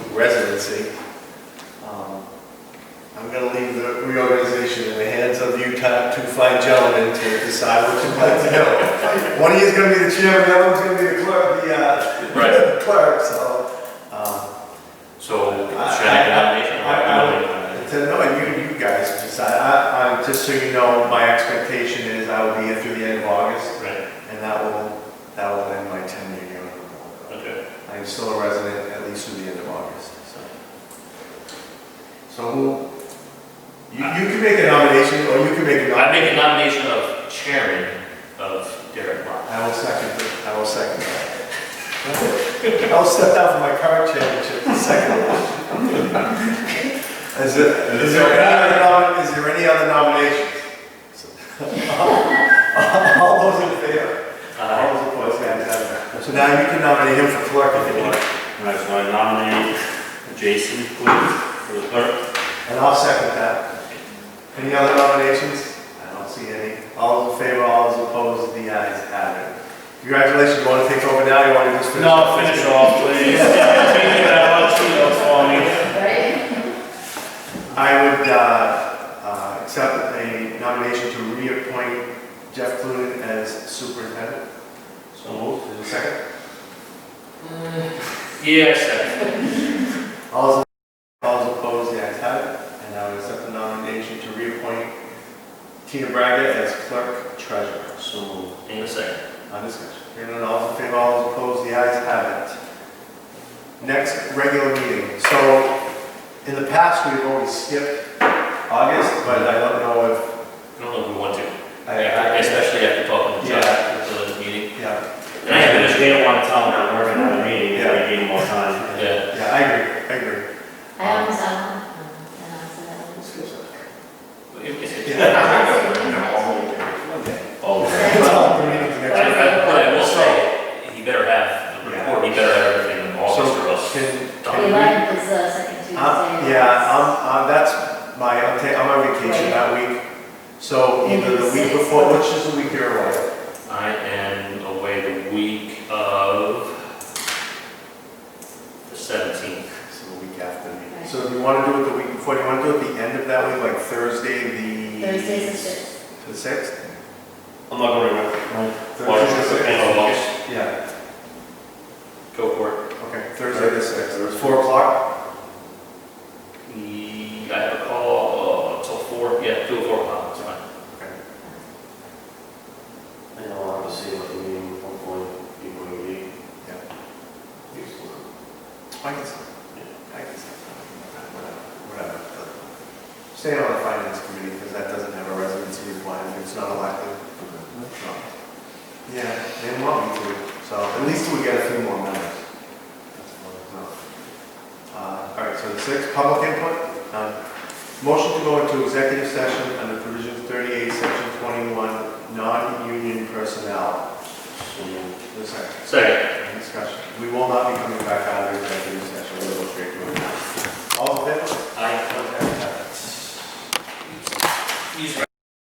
legacy. Um, I'm gonna leave the reorganization in the hands of you top two fine gentlemen to decide what you'd like to do. One of you's gonna be the chairman, the other one's gonna be the clerk, the, uh, Right. clerk, so, um, So, should I- I nominate or I- I- I nominate? to know, you, you guys decide. I, I, just so you know, my expectation is I will be here through the end of August, Right, and that will, that will end my tenure here on the board. okay. I am still a resident at least through the end of August, so. So who, you, you can make a nomination, or you can make a I nomination. make a nomination of chairman of Derek Lot. I will second, it. I will second that. I'll step down from my current championship to second. it. Is there, is there any other, nom- is there any other nominations? All those in favor? All those opposed, the ayes have it. So now you can nominate him for clerk if you want, All right, so I nominate Jason, please, for the clerk. and I'll second that. Any other nominations? I don't see any. All those in favor, all those opposed, the ayes have it. Congratulations, you want to take over now, you want to just finish? No, finish off, please. Thank you very much, you know, for me. Right? I would uh, uh, accept a nomination to reappoint Jeff Clunin as superintendent. So moved. Is there a second? Yeah, second. All those, all those opposed, the ayes have it. And I would accept the nomination to reappoint Tina Braga as clerk treasurer. So moved. In a second. On discussion. Hearing none, all in favor, all those opposed, the ayes have it. Next regular meeting. So in the past, we've always skipped August, but I don't know if. I don't know if we want to, I- I- especially after talking to Chuck Yeah. after the meeting. Yeah, And I have an issue. They don't want to tell them that we're gonna have a meeting, they might give them more time. Yeah. yeah, I agree, I agree. I always, um, and I said, I was Oh, It's all the meetings next I, week. I, but I will say, he better have the report, he better have everything in August or else. Can, The can we? eleventh is the second Tuesday. Uh, Yeah, I'm, uh, that's my, I'm ta- I'm on vacation that week. So either the week before, which is the week you're away. I am away the week of the seventeenth. So the week after. the meeting. So if you want to do it the week before, you want to do it the end of that week, like Thursday, the. Thursday's the sixth. The sixth? I'm not gonna remember. Thursday the sixth. End of August. Yeah, Go for it. okay, Thursday the sixth, It's four o'clock? We, I have a call uh, till four, yeah, till four o'clock, it's fine. I don't want to see what the meeting, hopefully, people will be. Yeah. I can, stop. I can, stop. whatever, whatever. Stay on the finance committee, because that doesn't have a residency requirement, it's not elected. No. Yeah, they want me to, so at least we get a few more members. No. Uh, All right, so the sixth, public input. None. Motion to go into executive session under provision 38, section 21, non-union personnel. The second. Second. Any Discussion. We will not be coming back out of executive session, we will go straight to it. All in favor? I, Okay. use